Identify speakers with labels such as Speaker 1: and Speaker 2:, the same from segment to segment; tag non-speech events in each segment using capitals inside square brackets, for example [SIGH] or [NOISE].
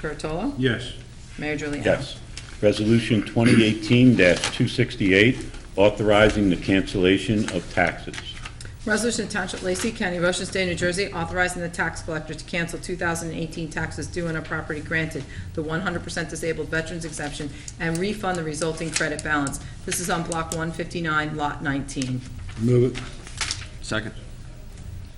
Speaker 1: Curatolo?
Speaker 2: Yes.
Speaker 1: Mayor Juliana?
Speaker 3: Yes. Resolution 2018-268, authorizing the cancellation of taxes.
Speaker 1: Resolution to Township of Lacey County, Ocean State, New Jersey, authorizing the tax collector to cancel 2018 taxes due on a property granted the 100% disabled veterans exemption and refund the resulting credit balance. This is on Block 159, Lot 19.
Speaker 2: Move it.
Speaker 4: Second.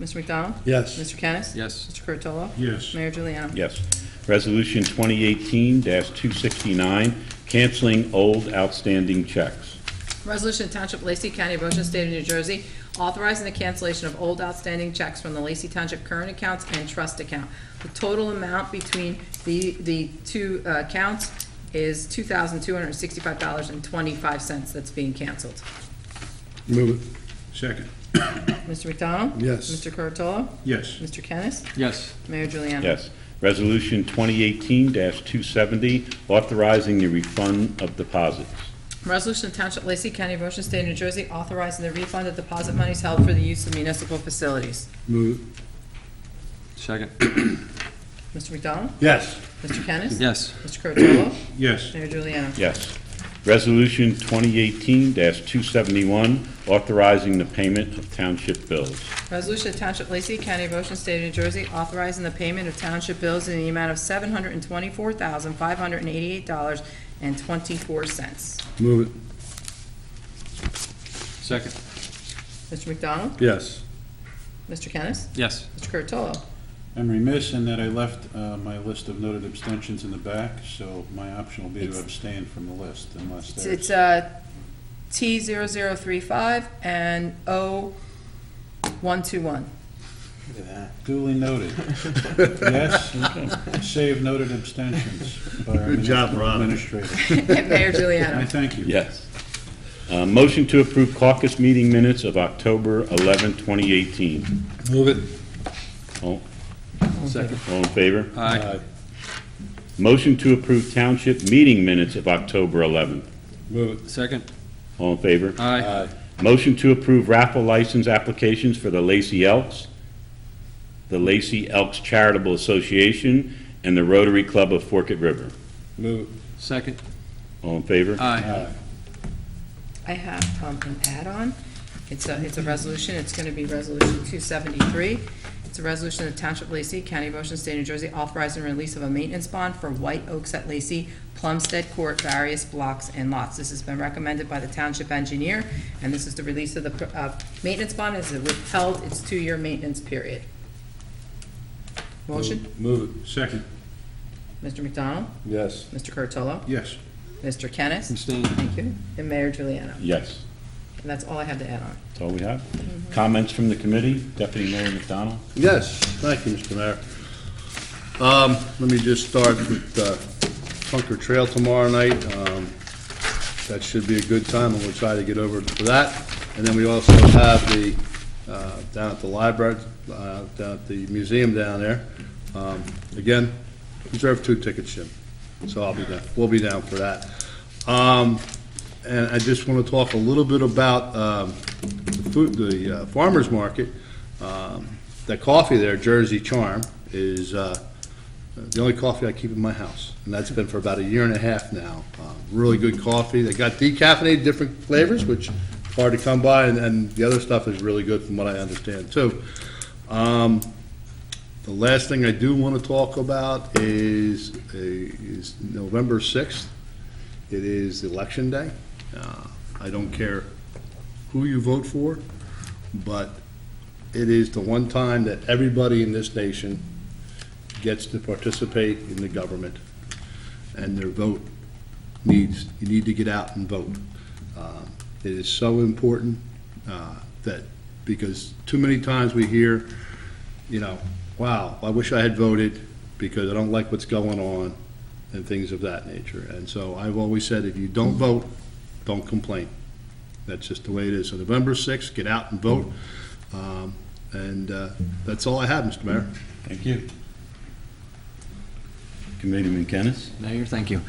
Speaker 1: Mr. McDonald?
Speaker 2: Yes.
Speaker 1: Mr. Kennis?
Speaker 4: Yes.
Speaker 1: Mr. Curatolo?
Speaker 2: Yes.
Speaker 1: Mayor Juliana?
Speaker 3: Yes. Resolution 2018-269, canceling old outstanding checks.
Speaker 1: Resolution to Township of Lacey County, Ocean State of New Jersey, authorizing the cancellation of old outstanding checks from the Lacey Township current accounts and trust account. The total amount between the, the two uh, accounts is two thousand two hundred sixty-five dollars and twenty-five cents that's being canceled.
Speaker 2: Move it. Second.
Speaker 1: Mr. McDonald?
Speaker 2: Yes.
Speaker 1: Mr. Curatolo?
Speaker 2: Yes.
Speaker 1: Mr. Kennis?
Speaker 4: Yes.
Speaker 1: Mayor Juliana?
Speaker 3: Yes. Resolution 2018-270, authorizing the refund of deposits.
Speaker 1: Resolution of Township of Lacey County, Ocean State, New Jersey, authorizing the refund of deposit monies held for the use of municipal facilities.
Speaker 2: Move it.
Speaker 4: Second.
Speaker 1: Mr. McDonald?
Speaker 2: Yes.
Speaker 1: Mr. Kennis?
Speaker 4: [COUGHS] Yes.
Speaker 1: Mr. Curatolo?
Speaker 2: Yes.
Speaker 1: Mayor Juliana?
Speaker 3: Yes. Resolution 2018-271, authorizing the payment of township bills.
Speaker 1: Resolution to Township of Lacey County, of Ocean State of New Jersey, authorizing the payment of township bills in the amount of seven hundred and twenty-four thousand, five hundred and eighty-eight dollars and twenty-four cents.
Speaker 2: Move it.
Speaker 4: Second.
Speaker 1: Mr. McDonald?
Speaker 2: Yes.
Speaker 1: Mr. Kennis?
Speaker 4: Yes.
Speaker 1: Mr. Curatolo?
Speaker 5: I'm remiss in that I left uh, my list of noted abstentions in the back, so my option will be to
Speaker 1: It's-
Speaker 5: abstain from the list unless
Speaker 1: It's-
Speaker 5: there's,
Speaker 1: It's, uh, T zero zero three five and O one two one. [LAUGHS]
Speaker 5: duly noted. Yes, save noted abstentions by our
Speaker 2: Good job,
Speaker 5: municipal
Speaker 2: Rob.
Speaker 5: administrator.
Speaker 1: Mayor
Speaker 5: I
Speaker 1: Juliana.
Speaker 5: thank you.
Speaker 3: Yes. Uh, Motion to approve caucus meeting minutes of October 11, 2018.
Speaker 2: Move it.
Speaker 3: All
Speaker 4: Second.
Speaker 3: Oh. all in favor?
Speaker 4: Aye.
Speaker 3: Motion to approve township meeting minutes of October 11.
Speaker 2: Move
Speaker 4: Second.
Speaker 3: All in favor?
Speaker 4: Aye.
Speaker 3: Motion to approve raffle license applications for the Lacey Elks, the Lacey Elks Charitable Association, and the Rotary Club of Forked River.
Speaker 2: it. Move it.
Speaker 4: Second.
Speaker 3: All in favor?
Speaker 4: Aye.
Speaker 1: I have um, an add-on. It's a, it's a resolution, it's going to be Resolution 273. It's a resolution of the Township of Lacey, County of Ocean, State of New Jersey, authorizing release of a maintenance bond for White Oaks at Lacey, Plumstead Court, various blocks and lots. This has been recommended by the Township Engineer, and this is the release of the uh, maintenance bond, it's withheld its two-year maintenance period. Motion,
Speaker 2: Move it.
Speaker 5: Second,
Speaker 1: Mr. McDonald,
Speaker 2: Yes.
Speaker 1: Mr. Curtolo,
Speaker 5: yes.
Speaker 1: Mr. Kennis,
Speaker 4: Abstain.
Speaker 1: thank you, and Mayor Juliana.
Speaker 3: Yes.
Speaker 1: And that's all I have to add on.
Speaker 3: That's all we have. Comments from the committee? Deputy Mayor McDonald?
Speaker 2: Yes, thank you, Mr. Mayor. Um, let me just start with, uh, Bunker Trail tomorrow night. Um, that should be a good time, and we'll try to get over for that. And then we also have the, uh, down at the library, uh, down at the museum down there. Um, again, reserve two tickets, Jim. So I'll be down, we'll be down for that. Um, and I just want to talk a little bit about, um, the food, the uh, farmer's market. Um, the coffee there, Jersey Charm, is, uh, the only coffee I keep in my house, and that's been for about a year and a half now. Uh, Really good coffee. They got decaffeinated, different flavors, which is hard to come by, and, and the other stuff is really good from what I understand, too. Um, The last thing I do want to talk about is, a- is November 6th. It is Election Day. Uh, I don't care who you vote for, but it is the one time that everybody in this nation gets to participate in the government, and their vote needs, you need to get out and vote. Uh, It is so important uh, that, because too many times we hear, you know, wow, I wish I had voted because I don't like what's going on, and things of that nature. And so I've always said, if you don't vote, don't complain. That's just the way it is. So November 6th, get out and vote. Um, And uh, that's all I have, Mr. Mayor.
Speaker 3: Thank you. Committeeman Kennis?
Speaker 4: Mayor, thank you.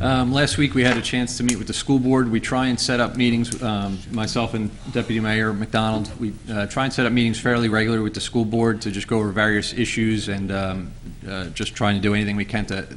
Speaker 4: Um, Last week, we had a chance to meet with the school board. We try and set up meetings, um, myself and Deputy Mayor McDonald, we uh, try and set up meetings fairly regular with the school board to just go over various issues and um, uh, just trying to do anything we can to